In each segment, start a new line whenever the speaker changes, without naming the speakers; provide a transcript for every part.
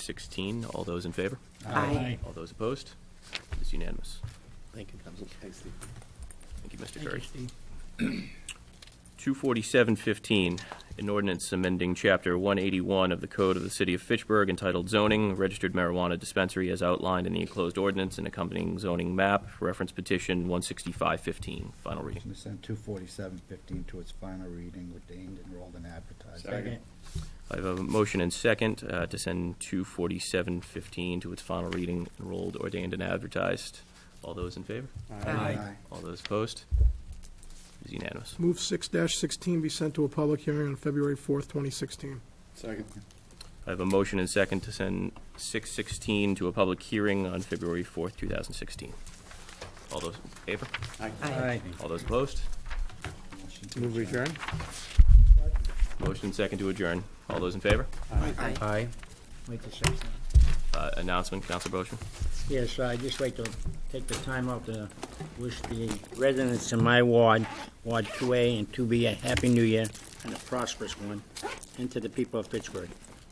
516. All those in favor?
Aye.
All those opposed? It is unanimous.
Thank you, Council. Thanks, Steve.
Thank you, Mr.
Thank you,
Curry.
Steve.
24715, an ordinance amending Chapter 181 of the Code of the City of Fitchburg entitled Zoning, Registered Marijuana Dispensary as outlined in the enclosed ordinance and accompanying zoning map, reference petition 16515, final reading.
Motion to send two forty-seven fifteen to its final reading, ordained, enrolled, and advertised.
Second.
I have a motion and second uh, to send 24715 to its final reading, enrolled, ordained, and advertised. All those in favor?
Aye.
All those opposed? It is unanimous.
Move 6-16 be sent to a public hearing on February 4th, 2016.
Second.
I have a motion and second to send 616 to a public hearing on February 4th, 2016. All those in favor?
Aye.
All those opposed?
Motion to
Move adjourn?
Motion and second to adjourn. All those in favor?
Aye.
Aye.
Wait till six.
Uh, Announcement, Counselor Boishman?
Yes, I'd just like to take the time out to wish the residents in my ward, Ward 2A and 2B, a happy new year and a prosperous one, and to the people of Pittsburgh.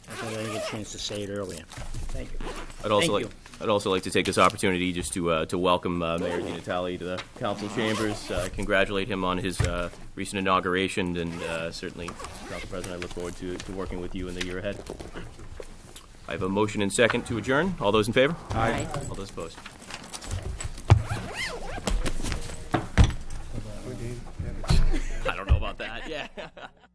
I thought I didn't get a chance to say it earlier. Thank you.
I'd also like,
Thank you.
I'd also like to take this opportunity just to, uh, to welcome uh, Mayor Di Natale to the council chambers, uh, congratulate him on his uh, recent inauguration, and uh, certainly, Council President, I look forward to, to working with you in the year ahead. I have a motion and second to adjourn. All those in favor?
Aye.
All those opposed? I don't know about that, yeah.